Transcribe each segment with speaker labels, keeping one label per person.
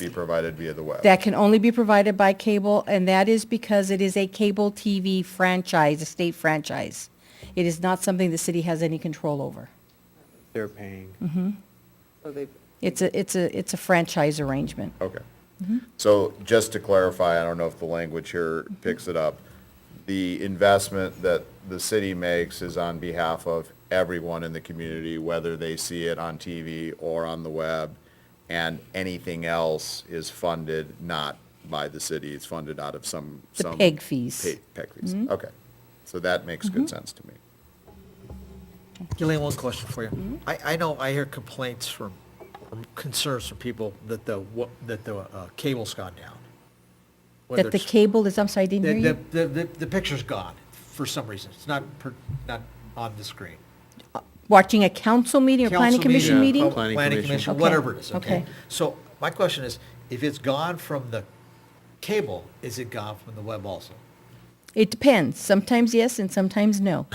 Speaker 1: be provided via the web.
Speaker 2: That can only be provided by cable, and that is because it is a cable TV franchise, a state franchise. It is not something the city has any control over.
Speaker 3: They're paying.
Speaker 2: Mm-hmm.
Speaker 4: So they,
Speaker 2: It's a, it's a, it's a franchise arrangement.
Speaker 1: Okay.
Speaker 2: Mm-hmm.
Speaker 1: So just to clarify, I don't know if the language here picks it up. The investment that the city makes is on behalf of everyone in the community, whether they see it on TV or on the web. And anything else is funded not by the city, it's funded out of some,
Speaker 2: The
Speaker 1: some.
Speaker 2: PEG fees. Mm-hmm.
Speaker 1: Pa- PEG fees, okay. So that makes good sense to me.
Speaker 5: Gillian, one question for you.
Speaker 2: Mm-hmm.
Speaker 5: I, I know, I hear complaints from, from concerns from people that the, wa- that the uh, cable's gone down. Whether
Speaker 2: That the
Speaker 5: it's-
Speaker 2: cable is, I'm sorry, I
Speaker 5: The,
Speaker 2: didn't hear you.
Speaker 5: the, the, the- the picture's gone for some reason. It's not, per- not on the screen.
Speaker 2: Watching a council meeting or planning
Speaker 5: Council Oh,
Speaker 2: commission meeting?
Speaker 3: Planning
Speaker 5: Planning
Speaker 3: commission.
Speaker 5: commission,
Speaker 2: Okay,
Speaker 5: whatever it is, okay?
Speaker 2: okay.
Speaker 5: So my question is, if it's gone from the cable, is it gone from the web also?
Speaker 2: It depends. Sometimes yes and sometimes no.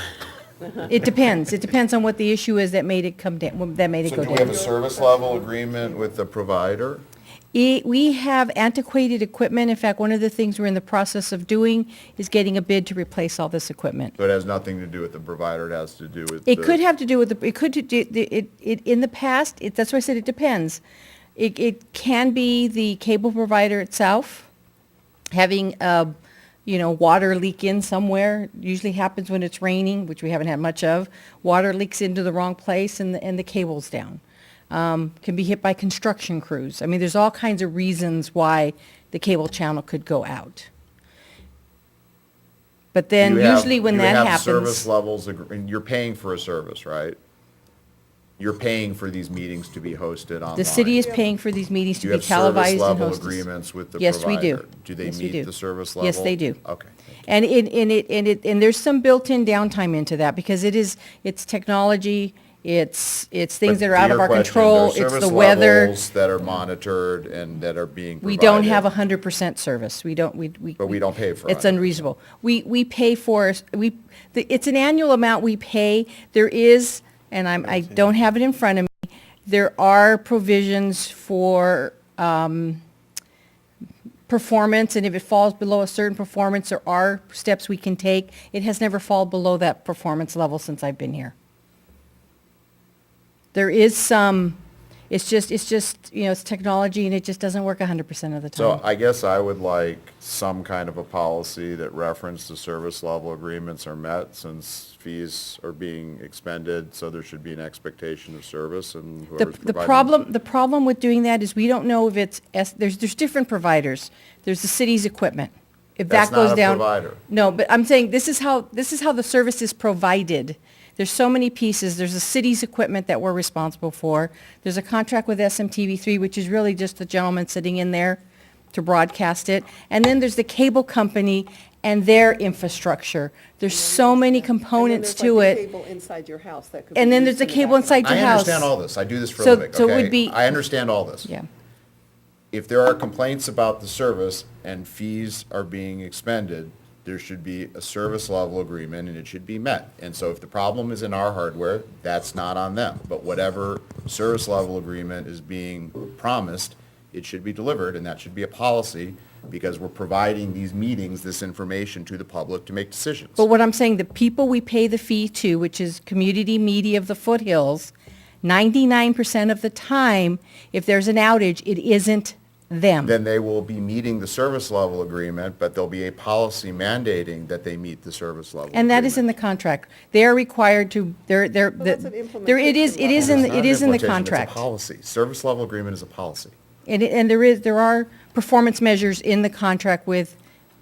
Speaker 2: It depends. It depends on what the issue is that made it come down, that made it
Speaker 1: So
Speaker 2: go
Speaker 1: do we have a
Speaker 2: down.
Speaker 1: service level agreement with the provider?
Speaker 2: E- We have antiquated equipment. In fact, one of the things we're in the process of doing is getting a bid to replace all this equipment.
Speaker 1: So it has nothing to do with the provider, it has to do with.
Speaker 2: It
Speaker 1: the-
Speaker 2: could have to do with, the. it could, do- do- the- it, it, in the past, it, that's why I said it depends. It, it can be the cable provider itself, having, uh, you know, water leak in somewhere, usually happens when it's raining, which we haven't had much of. Water leaks into the wrong place and, the- and the cable's down. Um, Can be hit by construction crews. I mean, there's all kinds of reasons why the cable channel could go out. But then
Speaker 1: You have-
Speaker 2: usually when
Speaker 1: you
Speaker 2: that
Speaker 1: have
Speaker 2: happens.
Speaker 1: Service levels, agr- and you're paying for a service, right? You're paying for these meetings to be hosted online.
Speaker 2: The city is paying for these meetings
Speaker 1: Do
Speaker 2: to
Speaker 1: you
Speaker 2: be
Speaker 1: have
Speaker 2: televised and
Speaker 1: Service level
Speaker 2: hosted.
Speaker 1: agreements with the
Speaker 2: Yes,
Speaker 1: provider.
Speaker 2: we do.
Speaker 1: they
Speaker 2: Yes, we do.
Speaker 1: meet the service level?
Speaker 2: Yes, they do.
Speaker 1: Okay.
Speaker 2: And it, and it, and it, and there's some built-in downtime into that because it is, it's technology, it's, it's things
Speaker 1: But
Speaker 2: that are
Speaker 1: to
Speaker 2: out
Speaker 1: your
Speaker 2: of our
Speaker 1: question,
Speaker 2: control,
Speaker 1: there are
Speaker 2: it's the
Speaker 1: service
Speaker 2: weather.
Speaker 1: levels That are monitored and that are being provided.
Speaker 2: We don't have a hundred percent service. We don't, we, we.
Speaker 1: But we don't pay for
Speaker 2: It's
Speaker 1: 100%.
Speaker 2: unreasonable. We, we pay for, we, the- it's an annual amount we pay. There is, and I'm, I don't have it in front of me, there are provisions for performance, and if it falls below a certain performance, there are steps we can take. It has never fallen below that performance level since I've been here. There is some, it's just, it's just, you know, it's technology, and it just doesn't work 100% of the
Speaker 1: So
Speaker 2: time.
Speaker 1: I guess I would like some kind of a policy that referenced the service level agreements are met since fees are being expended, so there should be an expectation of service and
Speaker 2: The,
Speaker 1: whoever's
Speaker 2: the
Speaker 1: providing.
Speaker 2: problem, the problem with doing that is we don't know if it's, S- there's, there's different providers. There's the city's equipment. If
Speaker 1: That's
Speaker 2: that goes
Speaker 1: not a
Speaker 2: down.
Speaker 1: provider.
Speaker 2: No, but I'm saying this is how, this is how the service is provided. There's so many pieces. There's the city's equipment that we're responsible for. There's a contract with SMTV3, which is really just the gentleman sitting in there to broadcast it. And then there's the cable company and their infrastructure. There's so many components to
Speaker 4: And
Speaker 2: it.
Speaker 4: then there's like the cable inside your house that could be
Speaker 2: And then there's
Speaker 4: used
Speaker 2: the
Speaker 4: in
Speaker 2: cable
Speaker 4: background.
Speaker 2: inside your
Speaker 1: I
Speaker 2: house.
Speaker 1: understand all this. I do this for a
Speaker 2: So-
Speaker 1: living, okay?
Speaker 2: so it would be-
Speaker 1: I understand all this.
Speaker 2: Yeah.
Speaker 1: If there are complaints about the service and fees are being expended, there should be a service level agreement and it should be met. And so if the problem is in our hardware, that's not on them. But whatever service level agreement is being promised, it should be delivered and that should be a policy because we're providing these meetings, this information to the public to make decisions.
Speaker 2: But what I'm saying, the people we pay the fee to, which is community media of the foothills, 99% of the time, if there's an outage, it isn't them.
Speaker 1: then they will be meeting the service level agreement, but there'll be a policy mandating that they meet the service level.
Speaker 2: And that is in the
Speaker 1: agreement.
Speaker 2: contract. They are required to, they're, they're,
Speaker 4: that's an
Speaker 2: there, it is, it is
Speaker 4: implementation
Speaker 1: It's
Speaker 2: in, the-
Speaker 1: not
Speaker 2: it
Speaker 1: an
Speaker 2: is in the
Speaker 1: implementation,
Speaker 2: contract.
Speaker 1: It's a policy. Service level agreement is a policy.
Speaker 2: And, it- and there is, there are performance measures in the contract with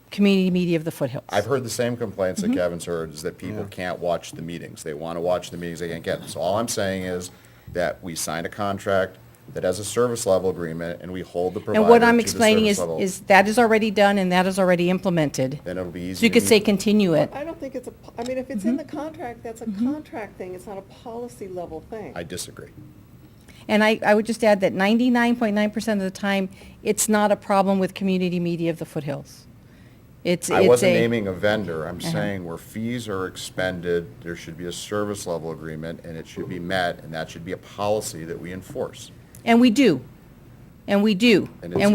Speaker 2: community media of the foothills.
Speaker 1: I've heard the same complaints
Speaker 2: Mm-hmm.
Speaker 1: that Kevin's heard, is that people can't watch the meetings. They want to watch the meetings, they can't get them. So all I'm saying is that we sign a contract that has a service level agreement, and we hold the provider
Speaker 2: And what I'm
Speaker 1: to the
Speaker 2: explaining
Speaker 1: service
Speaker 2: is,
Speaker 1: level.
Speaker 2: is that is already done and that is already implemented.
Speaker 1: Then it'll be easy.
Speaker 2: So you
Speaker 1: to
Speaker 2: could
Speaker 1: meet.
Speaker 2: say continue it.
Speaker 4: I don't think it's a, po- I mean, if
Speaker 2: Mm-hmm.
Speaker 4: it's in the contract, that's a contract thing, it's not a policy level thing.
Speaker 1: I disagree.
Speaker 2: And I, I would just add that 99.9% of the time, it's not a problem with community media of the foothills. It's,
Speaker 1: I
Speaker 2: it's
Speaker 1: wasn't
Speaker 2: a, Uh-huh.
Speaker 1: naming a vendor, I'm saying where fees are expended, there should be a service level agreement, and it should be met, and that should be a policy that we enforce.
Speaker 2: and we do, and we do,
Speaker 1: And
Speaker 2: and
Speaker 1: it's
Speaker 2: we